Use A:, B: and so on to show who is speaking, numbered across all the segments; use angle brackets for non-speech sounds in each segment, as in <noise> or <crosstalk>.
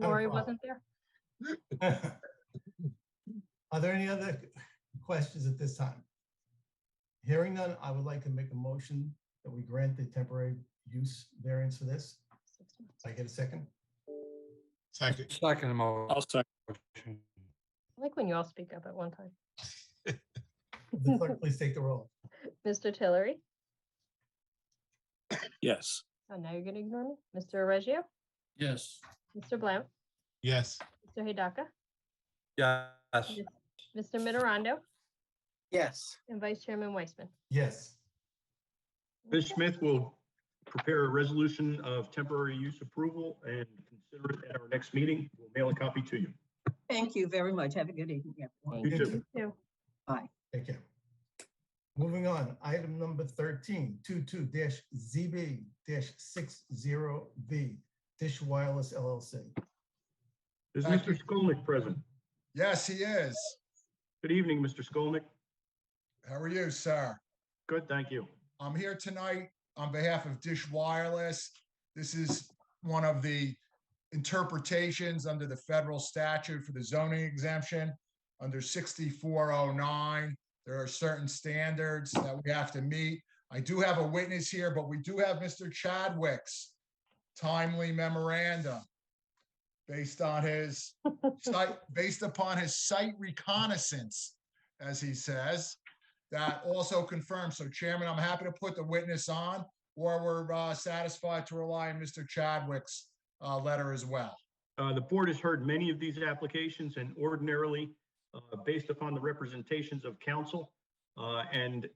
A: Lori
B: problem.
A: wasn't there?
B: <laughs> Are there any other questions at this time? Hearing none, I would like to make a motion that we grant the temporary use variance for this. Can I get a second?
C: Second.
D: Second
E: I'll
D: motion.
E: second.
A: I like when you all speak up at one time.
B: The clerk, Please take the roll.
A: Mr. Tillery,
E: Yes.
A: oh, now you're gonna ignore me. Mr. Reggio,
E: Yes.
A: Mr. Blount,
C: Yes.
A: Mr. Hidaka,
D: Yes.
A: Mr. Mitterondo,
D: Yes.
A: and Vice Chairman Weissman.
B: Yes,
F: Ms. Smith will prepare a resolution of temporary use approval and consider it at our next meeting. We'll mail a copy to you.
G: Thank you very much. Have a good evening, everyone.
A: Thank
F: You too.
A: Two.
B: Thank you. Moving on, item number 13, 22-ZB-60B, Dish Wireless LLC.
F: Is
C: Thank you.
F: Mr. Skolnick present?
C: Yes, he is.
F: Good evening, Mr. Skolnick.
C: How are you, sir?
F: Good, thank you.
C: I'm here tonight on behalf of Dish Wireless. This is one of the interpretations under the federal statute for the zoning exemption. Under 6409, there are certain standards that we have to meet. I do have a witness here, but we do have Mr. Chadwick's timely memorandum based on his site, based upon his site reconnaissance, as he says that also confirms. So Chairman, I'm happy to put the witness on, or we're uh, satisfied to rely on Mr. Chadwick's uh, letter as well.
F: Uh, The board has heard many of these applications and ordinarily, uh, based upon the representations of counsel uh, and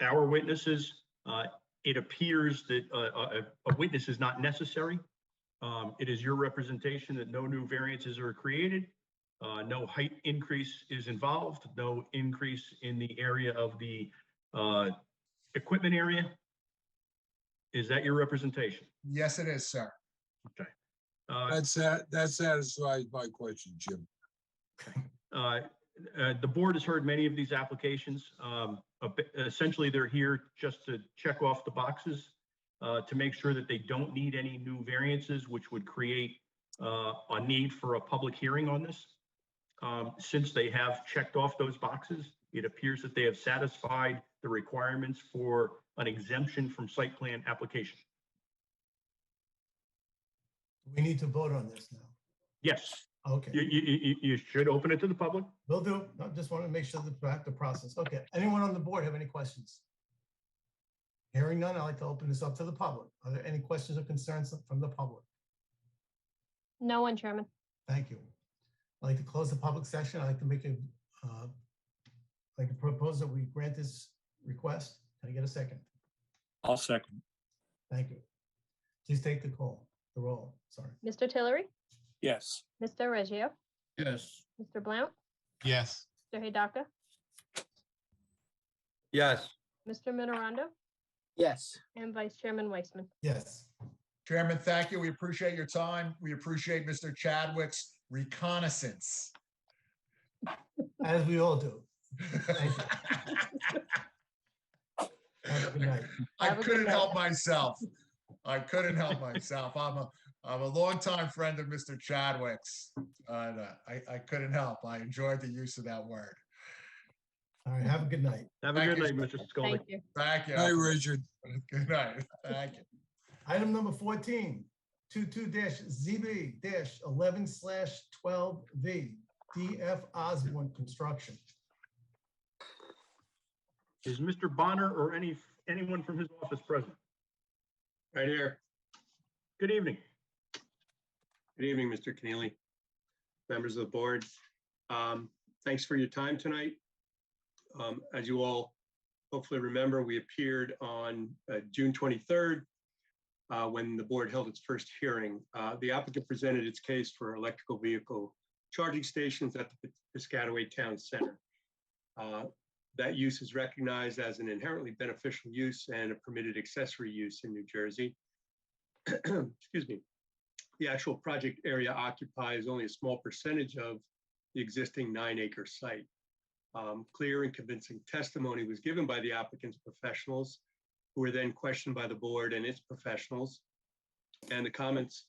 F: our witnesses, uh, it appears that uh, a a witness is not necessary. Um, It is your representation that no new variances are created, uh, no height increase is involved, no increase in the area of the uh, equipment area. Is that your representation?
C: Yes, it is, sir.
F: Uh,
H: That's that, that satisfies my question, Jim.
F: Uh, uh, The board has heard many of these applications. Um, a bit- Essentially, they're here just to check off the boxes uh, to make sure that they don't need any new variances, which would create uh, a need for a public hearing on this. Um, Since they have checked off those boxes, it appears that they have satisfied the requirements for an exemption from site plan application.
B: We need to vote on this now.
F: Yes, you,
B: Okay,
F: you, you- you should open it to the public.
B: will do. I just want to make sure that we have the process. Okay, anyone on the board have any questions? Hearing none, I'd like to open this up to the public. Are there any questions or concerns from the public?
A: No one, Chairman.
B: Thank you. I'd like to close the public session. I'd like to make a, uh, I'd like to propose that we grant this request. Can I get a second?
E: I'll second.
B: Thank you. Please take the call, the roll, sorry.
A: Mr. Tillery,
E: Yes.
A: Mr. Reggio,
E: Yes.
A: Mr. Blount,
C: Yes.
A: Mr. Hidaka,
D: Yes.
A: Mr. Mitterondo,
D: Yes.
A: and Vice Chairman Weissman.
B: Yes,
C: Chairman, thank you. We appreciate your time. We appreciate Mr. Chadwick's reconnaissance.
B: as we all do. Thank Have a good night.
C: <laughs> I
A: Have a good
C: couldn't
A: night.
C: help myself. I couldn't help myself. I'm a, I'm a longtime friend of Mr. Chadwick's. And uh, I, I couldn't help. I enjoyed the use of that word.
B: All right, have a good night.
F: Have a
C: Thank
F: good night,
C: you.
F: Mr. Skolnick.
A: Thank you.
C: Thank
H: Hi,
C: you.
H: Richard.
C: <laughs> Good night. Thank you.
B: Item number 14, 22-ZB-11/12V, DF Osborne Construction.
F: Is Mr. Bonner or any, anyone from his office present?
I: Right here.
F: Good evening.
I: Good evening, Mr. Keneally, members of the board. Um, Thanks for your time tonight. Um, As you all hopefully remember, we appeared on uh, June 23rd uh, when the board held its first hearing. Uh, The applicant presented its case for electrical vehicle charging stations at the Piscataway Town Center. Uh, That use is recognized as an inherently beneficial use and a permitted accessory use in New Jersey. <clears throat> Excuse me the actual project area occupies only a small percentage of the existing nine acre site. Um, Clear and convincing testimony was given by the applicant's professionals, who were then questioned by the board and its professionals. And the comments